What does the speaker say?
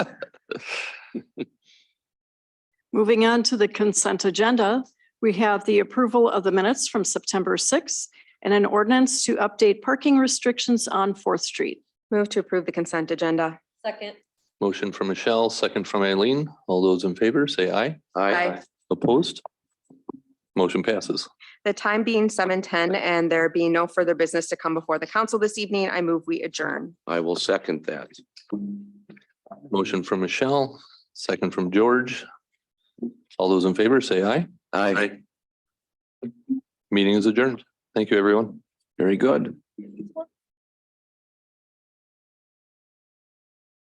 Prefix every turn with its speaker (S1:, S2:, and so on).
S1: Moving on to the consent agenda, we have the approval of the minutes from September 6th and an ordinance to update parking restrictions on Fourth Street.
S2: Move to approve the consent agenda.
S3: Second.
S4: Motion from Michelle, second from Eileen. All those in favor, say aye.
S2: Aye.
S4: Opposed? Motion passes.
S2: The time being seven ten and there being no further business to come before the council this evening, I move we adjourn.
S5: I will second that.
S4: Motion from Michelle, second from George. All those in favor, say aye.
S5: Aye.
S4: Meeting is adjourned. Thank you, everyone.
S5: Very good.